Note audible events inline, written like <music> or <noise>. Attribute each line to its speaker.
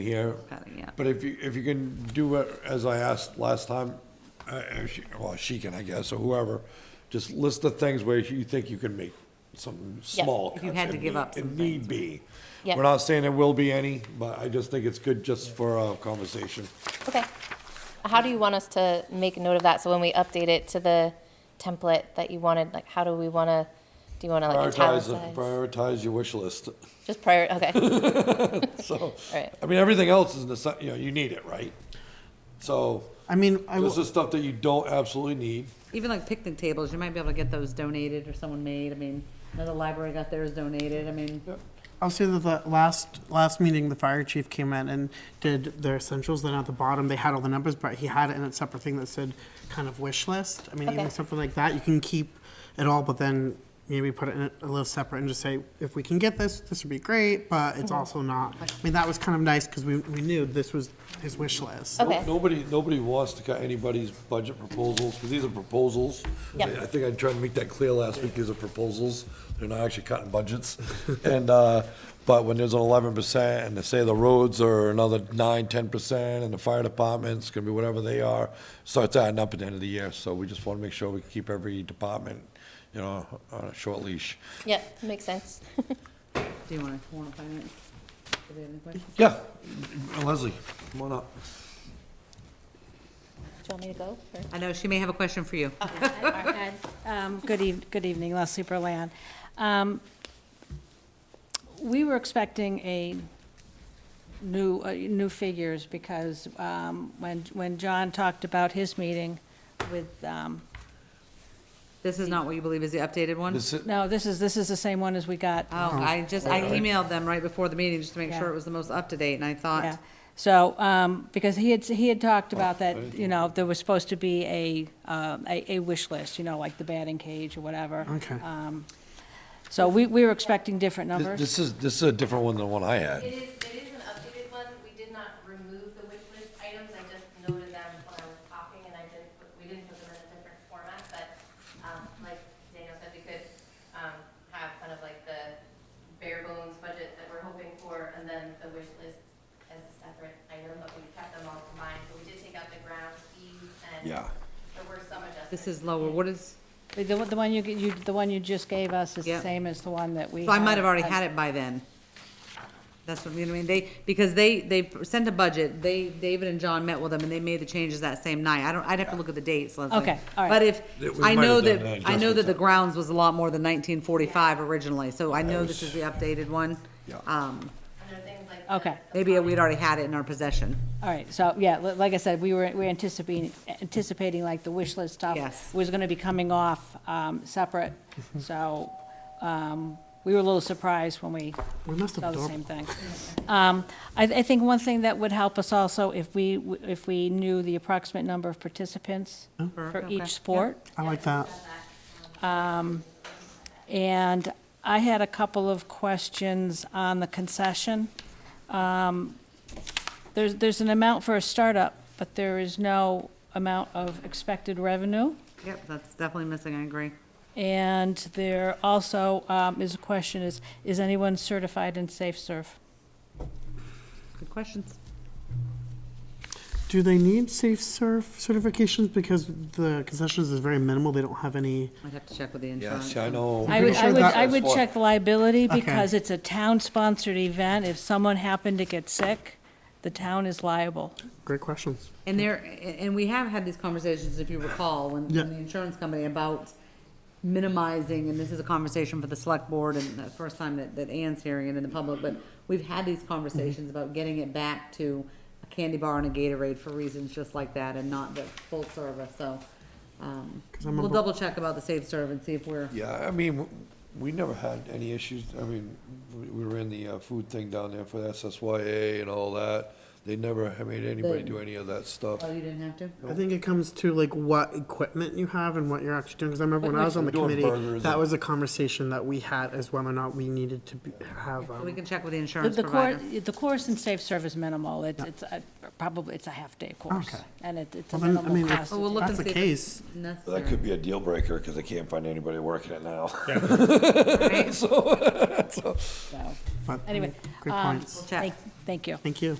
Speaker 1: here.
Speaker 2: Got it, yeah.
Speaker 1: But if you, if you can do it, as I asked last time, uh, if she- well, she can, I guess, or whoever, just list the things where you think you can make some
Speaker 3: Yeah.
Speaker 1: small
Speaker 2: If you had
Speaker 1: cuts,
Speaker 2: to
Speaker 1: if
Speaker 2: give
Speaker 1: need-
Speaker 2: up some
Speaker 1: If need be.
Speaker 3: Yeah.
Speaker 1: We're not saying there will be any, but I just think it's good just for a conversation.
Speaker 3: Okay. How do you want us to make note of that? So when we update it to the template that you wanted, like, how do we want to, do you want to like
Speaker 1: Prioritize, the-
Speaker 3: italicize?
Speaker 1: prioritize your wish list, <laughs>
Speaker 3: Just prior, okay, <laughs>
Speaker 1: so.
Speaker 3: Right.
Speaker 1: I mean, everything else is, necess- you know, you need it, right? So,
Speaker 4: I mean, I
Speaker 1: this
Speaker 4: will,
Speaker 1: is stuff that you don't absolutely need.
Speaker 2: Even like picnic tables, you might be able to get those donated or someone made. I mean, another library got theirs donated. I mean,
Speaker 4: I'll say that the last, last meeting, the fire chief came in and did their essentials, then at the bottom, they had all the numbers, but he had it in a separate thing that said kind of wish list. I mean, even
Speaker 3: Okay.
Speaker 4: something like that, you can keep it all, but then maybe put it in a a little separate and just say, if we can get this, this would be great, but it's also not. I mean, that was kind of nice, because we, we knew this was his wish list.
Speaker 3: okay.
Speaker 1: Nobody, nobody wants to cut anybody's budget proposals, because these are proposals.
Speaker 3: Yep.
Speaker 1: I I think I tried to make that clear last week, these are proposals, they're not actually
Speaker 3: <laughs>
Speaker 1: cutting budgets. And, uh, but when there's an eleven percent, and they say the roads are another nine, ten percent, and the fire department's gonna be whatever they are, starts adding up at the end of the year, so we just wanna make sure we keep every department, you know, on a short leash.
Speaker 3: Yeah, makes sense. <laughs>
Speaker 2: do you want to, want to find it? Do they have any questions?
Speaker 1: Yeah, Uh, Leslie, come on up.
Speaker 3: Do you want me to go? or-
Speaker 2: I know she may have a question for you.
Speaker 5: Um, Good eve, good evening, Leslie Berland. Um, We were expecting a new, uh, new figures because um, when, when John talked about his meeting with, um,
Speaker 2: This is not what you believe is the updated one?
Speaker 1: This is-
Speaker 5: no, this is, this is the same one as we got.
Speaker 2: Oh, I just, I emailed them right before the meeting just to make sure
Speaker 5: Yeah.
Speaker 2: it was the most up to date and I
Speaker 5: Yeah.
Speaker 2: thought,
Speaker 5: So, um, because he had, he had talked about that, you know, there was supposed to be a, um, a, a wish list, you know, like the batting cage or whatever.
Speaker 4: Okay.
Speaker 5: Um, So we, we were expecting different numbers.
Speaker 1: This is, this is a different one than the one I had.
Speaker 6: It is, it is an updated one. We did not remove the wish list items. I just noted them when I was talking and I didn't, put- we didn't put them in a different format, but, um, like Daniel said, we could, um, have kind of like the bare bones budget that we're hoping for and then the wish list as a separate item, but we kept them all combined. But we did take out the grounds fees and
Speaker 1: Yeah.
Speaker 6: there were some adjustments.
Speaker 2: this is lower. What is,
Speaker 5: The, the one- the one you, g- you, the one you just gave us is
Speaker 2: Yeah.
Speaker 5: the same as the one that we.
Speaker 2: so I might have already had it by then. That's what, you know what I mean? They, because they, they sent a budget. They, David and John met with them and they made the changes that same night. I don't, I'd have to look at the dates, Leslie.
Speaker 5: Okay, all right.
Speaker 2: But if,
Speaker 1: That we
Speaker 2: I
Speaker 1: might
Speaker 2: know
Speaker 1: have done
Speaker 2: that,
Speaker 1: an
Speaker 2: I know that the
Speaker 1: adjustment.
Speaker 2: grounds was a lot more than nineteen forty-five originally, so I know this
Speaker 1: was-
Speaker 2: is the updated one.
Speaker 1: Yeah.
Speaker 2: Um,
Speaker 6: And there are things like. the-
Speaker 5: Okay,
Speaker 2: maybe we'd already had it in our possession.
Speaker 5: all right, so, yeah, li- like I said, we were, we were anticipating, anticipating like the wish list stuff.
Speaker 2: Yes.
Speaker 5: Was gonna be coming off, um, separate, so, um, we were a little surprised when we
Speaker 4: We must
Speaker 5: saw
Speaker 4: have
Speaker 5: the
Speaker 4: done.
Speaker 5: same thing. Um, I, I think one thing that would help us also, if we, w- if we knew the approximate number of participants for
Speaker 2: Okay.
Speaker 5: each sport.
Speaker 4: I like that.
Speaker 5: And I had a couple of questions on the concession. Um, There's, there's an amount for a startup, but there is no amount of expected revenue.
Speaker 2: Yep, that's definitely missing, I agree.
Speaker 5: And there also um, is a question is, is anyone certified in Safe Surf?
Speaker 2: Good questions.
Speaker 4: Do they need safe surf certifications? Because the concessions is very minimal, they don't have any.
Speaker 2: I'd have to check with the
Speaker 1: Yeah,
Speaker 2: insurance.
Speaker 1: see, I know.
Speaker 5: I would, I
Speaker 4: sure
Speaker 5: would,
Speaker 4: that-
Speaker 5: I would check the liability
Speaker 4: Okay.
Speaker 5: because it's a town-sponsored event. If someone happened to get sick, the town is liable.
Speaker 4: Great questions.
Speaker 2: And there, and and we have had these conversations, if you recall, when,
Speaker 4: Yeah.
Speaker 2: when the insurance company about minimizing, and this is a conversation for the select board and the first time that, that Ann's hearing it in the public, but we've had these conversations about getting it back to a candy bar and a Gatorade for reasons just like that and not the full service, so. Um,
Speaker 4: 'Cause I
Speaker 2: we'll
Speaker 4: remember-
Speaker 2: double check about the safe serve and see if we're,
Speaker 1: Yeah, I mean, w- we never had any issues, I mean, we- we were in the uh, food thing down there for SSYA and all that. They never ha- made anybody do any of that stuff.
Speaker 2: oh, you didn't have to?
Speaker 4: I think it comes to like what equipment you have and what you're actually doing. Because I remember when I was on the
Speaker 1: Doing
Speaker 4: committee,
Speaker 1: burgers
Speaker 4: that
Speaker 1: and-
Speaker 4: was a conversation that we had as whether or not we needed to be, have.
Speaker 2: We
Speaker 4: Um,
Speaker 2: can check with the
Speaker 5: The-
Speaker 2: insurance
Speaker 5: The course,
Speaker 2: provider.
Speaker 5: the course in Safe Serve is minimal. It's, it's a- probably, it's a half-day course.
Speaker 4: Okay.
Speaker 5: And it- it's a
Speaker 4: well, then, I mean,
Speaker 5: minimal
Speaker 4: if
Speaker 5: cost.
Speaker 2: Oh, we'll look
Speaker 4: that's the
Speaker 2: and see if
Speaker 4: case,
Speaker 2: Necessary.
Speaker 7: That could be a deal breaker because I can't find anybody working it now.
Speaker 1: <laughs>
Speaker 2: Right?
Speaker 5: so.
Speaker 4: but
Speaker 5: Anyway,
Speaker 4: great
Speaker 5: um,
Speaker 4: points.
Speaker 2: Check. um,
Speaker 5: Thank- Thank you.
Speaker 4: Thank you.